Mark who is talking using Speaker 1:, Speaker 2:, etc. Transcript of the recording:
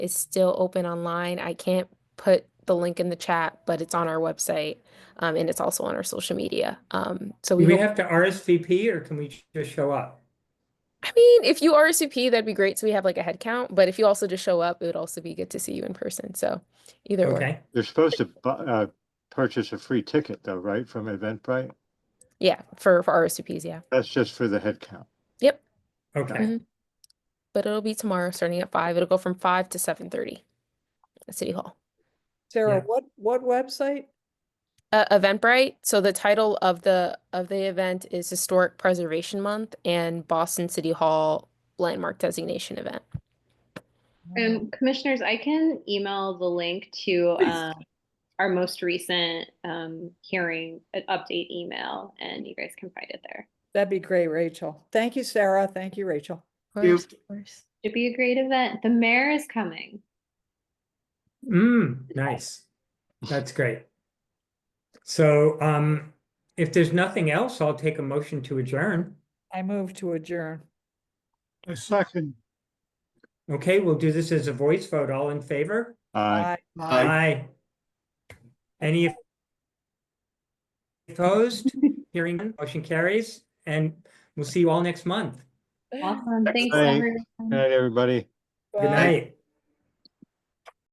Speaker 1: is still open online. I can't put the link in the chat, but it's on our website. Um, and it's also on our social media. Um, so we,
Speaker 2: Do we
Speaker 1: hope-
Speaker 2: have to RSVP or can we just show up?
Speaker 1: I mean, if you RSVP, that'd be great. So we have like a head count, but if you also just show up, it would also be good to see you in person. So either way,
Speaker 2: Okay,
Speaker 3: They're supposed to bu- uh, purchase a free ticket though, right, from Eventbrite?
Speaker 1: yeah, for, for RSVPs, yeah.
Speaker 3: That's just for the head count.
Speaker 1: Yep.
Speaker 2: okay.
Speaker 1: Mhm. But it'll be tomorrow starting at five. It'll go from five to seven thirty at City Hall.
Speaker 4: Sarah,
Speaker 2: Yeah.
Speaker 4: what, what website?
Speaker 1: Uh, Eventbrite. So the title of the of the event is Historic Preservation Month and Boston City Hall Landmark Designation Event.
Speaker 5: Um, commissioners, I can email the link to um, our most recent um, hearing uh, update email, and you guys can find it there.
Speaker 4: That'd be great, Rachel. Thank you, Sarah. Thank you, Rachel.
Speaker 1: Of
Speaker 6: You-
Speaker 1: course, of course.
Speaker 5: Should be a great event. The mayor is coming.
Speaker 2: Mm, nice. That's great. So um, if there's nothing else, I'll take a motion to adjourn.
Speaker 4: I move to adjourn.
Speaker 3: A second.
Speaker 2: Okay, we'll do this as a voice vote. All in favor?
Speaker 3: Uh,
Speaker 4: Bye.
Speaker 6: Aye.
Speaker 2: Any opposed? Hearing none, motion carries, and we'll see you all next month.
Speaker 5: Awesome. Thanks,
Speaker 3: Excellent.
Speaker 5: everyone.
Speaker 3: good night, everybody.
Speaker 2: Good night.